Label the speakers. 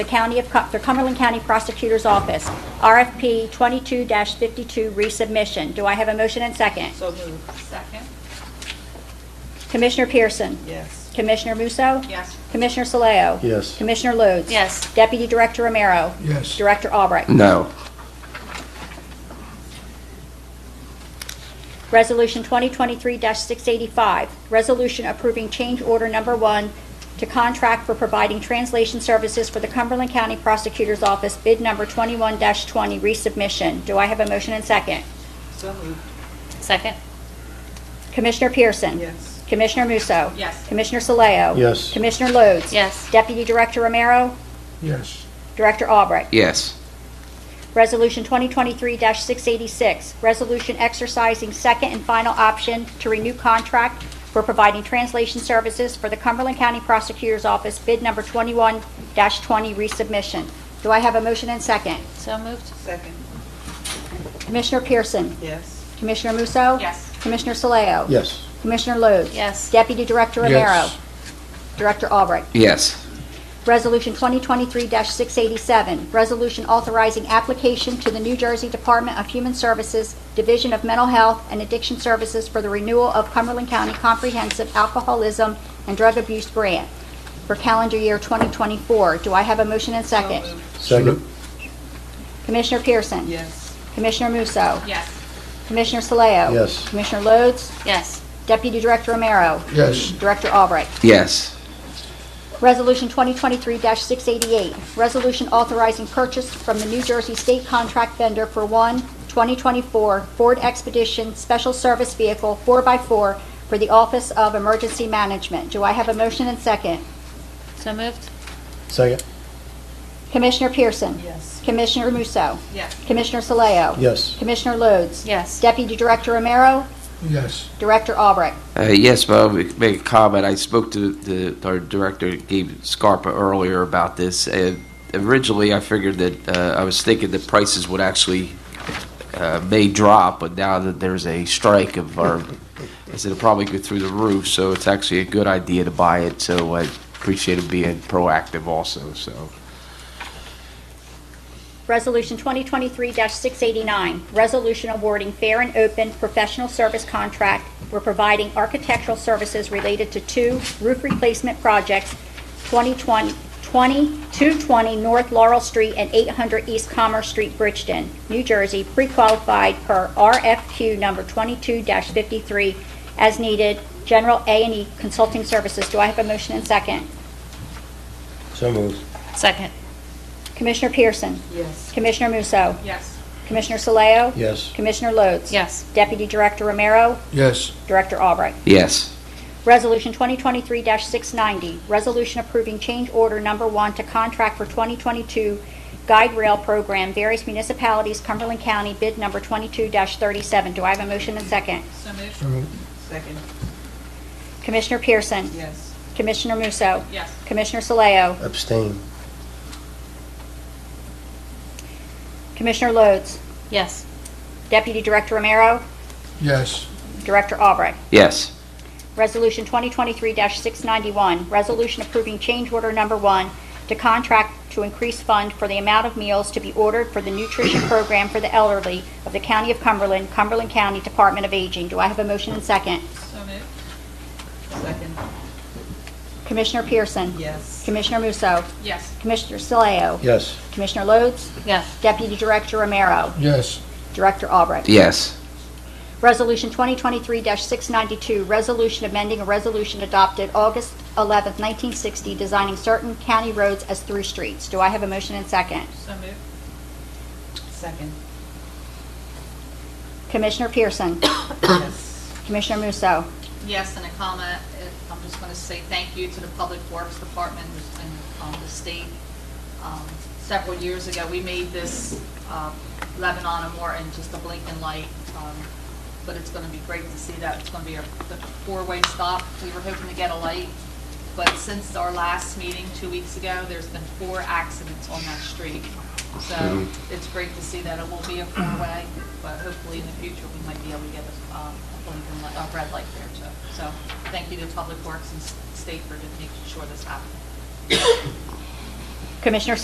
Speaker 1: the County of, Cum- the Cumberland County Prosecutor's Office, RFP 22-52 resubmission. Do I have a motion and second?
Speaker 2: So moved. Second?
Speaker 1: Commissioner Pearson?
Speaker 2: Yes.
Speaker 1: Commissioner Musso?
Speaker 2: Yes.
Speaker 1: Commissioner Saleo?
Speaker 3: Yes.
Speaker 1: Commissioner Lodes?
Speaker 4: Yes.
Speaker 1: Deputy Director Romero?
Speaker 5: Yes.
Speaker 1: Director Albright?
Speaker 3: No.
Speaker 1: Resolution 2023-685, resolution approving change order number one to contract for providing translation services for the Cumberland County Prosecutor's Office, bid number 21-20, resubmission. Do I have a motion and second?
Speaker 2: So moved.
Speaker 4: Second?
Speaker 1: Commissioner Pearson?
Speaker 2: Yes.
Speaker 1: Commissioner Musso?
Speaker 2: Yes.
Speaker 1: Commissioner Saleo?
Speaker 3: Yes.
Speaker 1: Commissioner Lodes?
Speaker 4: Yes.
Speaker 1: Deputy Director Romero?
Speaker 5: Yes.
Speaker 1: Director Albright?
Speaker 6: yes,
Speaker 1: Resolution 2023-686, resolution exercising second and final option to renew contract for providing translation services for the Cumberland County Prosecutor's Office, bid number 21-20 resubmission. Do I have a motion and second?
Speaker 4: So moved?
Speaker 2: Second?
Speaker 1: Commissioner Pearson?
Speaker 2: Yes.
Speaker 1: Commissioner Musso?
Speaker 2: Yes.
Speaker 1: Commissioner Saleo?
Speaker 3: Yes.
Speaker 1: Commissioner Lodes?
Speaker 4: Yes.
Speaker 1: Deputy Director Romero?
Speaker 5: Yes.
Speaker 1: Director Albright?
Speaker 6: yes,
Speaker 1: Resolution 2023-687, resolution authorizing application to the New Jersey Department of Human Services, Division of Mental Health and Addiction Services for the renewal of Cumberland County Comprehensive Alcoholism and Drug Abuse Grant for calendar year 2024. Do I have a motion and second?
Speaker 2: So moved.
Speaker 3: Second.
Speaker 1: Commissioner Pearson?
Speaker 2: Yes.
Speaker 1: Commissioner Musso?
Speaker 2: Yes.
Speaker 1: Commissioner Saleo?
Speaker 3: Yes.
Speaker 1: Commissioner Lodes?
Speaker 4: Yes.
Speaker 1: Deputy Director Romero?
Speaker 5: Yes.
Speaker 1: Director Albright?
Speaker 6: yes,
Speaker 1: Resolution 2023-688, resolution authorizing purchase from the New Jersey State Contract Vendor for one 2024 Ford Expedition Special Service Vehicle 4x4 for the Office of Emergency Management. Do I have a motion and second?
Speaker 4: So moved?
Speaker 3: Second.
Speaker 1: Commissioner Pearson?
Speaker 2: Yes.
Speaker 1: Commissioner Musso?
Speaker 2: Yes.
Speaker 1: Commissioner Saleo?
Speaker 3: Yes.
Speaker 1: Commissioner Lodes?
Speaker 4: Yes.
Speaker 1: Deputy Director Romero?
Speaker 5: Yes.
Speaker 1: Director Albright?
Speaker 6: uh, yes, but I'll make a comment. I spoke to the, our director, Gabe Scarpa, earlier about this. Uh, originally, I figured that uh, I was thinking that prices would actually uh, may drop, but now that there's a strike of our, I said it'll probably go through the roof, so it's actually a good idea to buy it. So I appreciate him being proactive also. So
Speaker 1: Resolution 2023-689, resolution awarding fair and open professional service contract. We're providing architectural services related to two roof replacement projects, 2020 20 220 North Laurel Street and 800 East Commerce Street, Bridgeton, New Jersey, pre-qualified per RFQ number 22-53 as needed, general a and E consulting services. Do I have a motion and second?
Speaker 3: So moved.
Speaker 4: Second?
Speaker 1: Commissioner Pearson?
Speaker 2: Yes.
Speaker 1: Commissioner Musso?
Speaker 2: Yes.
Speaker 1: Commissioner Saleo?
Speaker 3: Yes.
Speaker 1: Commissioner Lodes?
Speaker 4: Yes.
Speaker 1: Deputy Director Romero,
Speaker 5: Yes.
Speaker 1: Director Albright.
Speaker 6: yes,
Speaker 1: Resolution 2023-690, resolution approving change order number one to contract for 2022 guide rail program, various municipalities, Cumberland County, bid number 22-37. Do I have a motion and second?
Speaker 2: So moved.
Speaker 5: So moved.
Speaker 2: Second?
Speaker 1: Commissioner Pearson?
Speaker 2: Yes.
Speaker 1: Commissioner Musso?
Speaker 2: Yes.
Speaker 1: Commissioner Saleo?
Speaker 3: Abstain.
Speaker 1: Commissioner Lodes?
Speaker 4: Yes.
Speaker 1: Deputy Director Romero?
Speaker 5: Yes.
Speaker 1: Director Albright.
Speaker 6: yes,
Speaker 1: Resolution 2023-691, resolution approving change order number one to contract to increase fund for the amount of meals to be ordered for the nutrition program for the elderly of the County of Cumberland, Cumberland County Department of Aging. Do I have a motion and second?
Speaker 2: So moved. Second?
Speaker 1: Commissioner Pearson?
Speaker 2: Yes.
Speaker 1: Commissioner Musso?
Speaker 2: Yes.
Speaker 1: Commissioner Saleo?
Speaker 3: Yes.
Speaker 1: Commissioner Lodes?
Speaker 4: Yes.
Speaker 1: Deputy Director Romero?
Speaker 5: Yes.
Speaker 1: Director Albright?
Speaker 6: yes,
Speaker 1: Resolution 2023-692, resolution amending a resolution adopted August 11, 1960, designing certain county roads as through streets. Do I have a motion and second?
Speaker 2: So moved. Second?
Speaker 1: Commissioner Pearson.
Speaker 2: Yes.
Speaker 1: Commissioner Musso.
Speaker 7: Yes, and a comma, uh, I'm just going to say thank you to the Public Works Department and um, the state. Um, Several years ago, we made this uh, Lebanon and Morton just a blinking light, um, but it's going to be great to see that. It's going to be a the four-way stop. We were hoping to get a light, but since our last meeting two weeks ago, there's been four accidents on that street. So it's great to see that it will be a four-way, but hopefully in the future, we might be able to get a um, a blinking light, a red light there too. So thank you to Public Works and s- State for just making sure this happens.
Speaker 1: Commissioner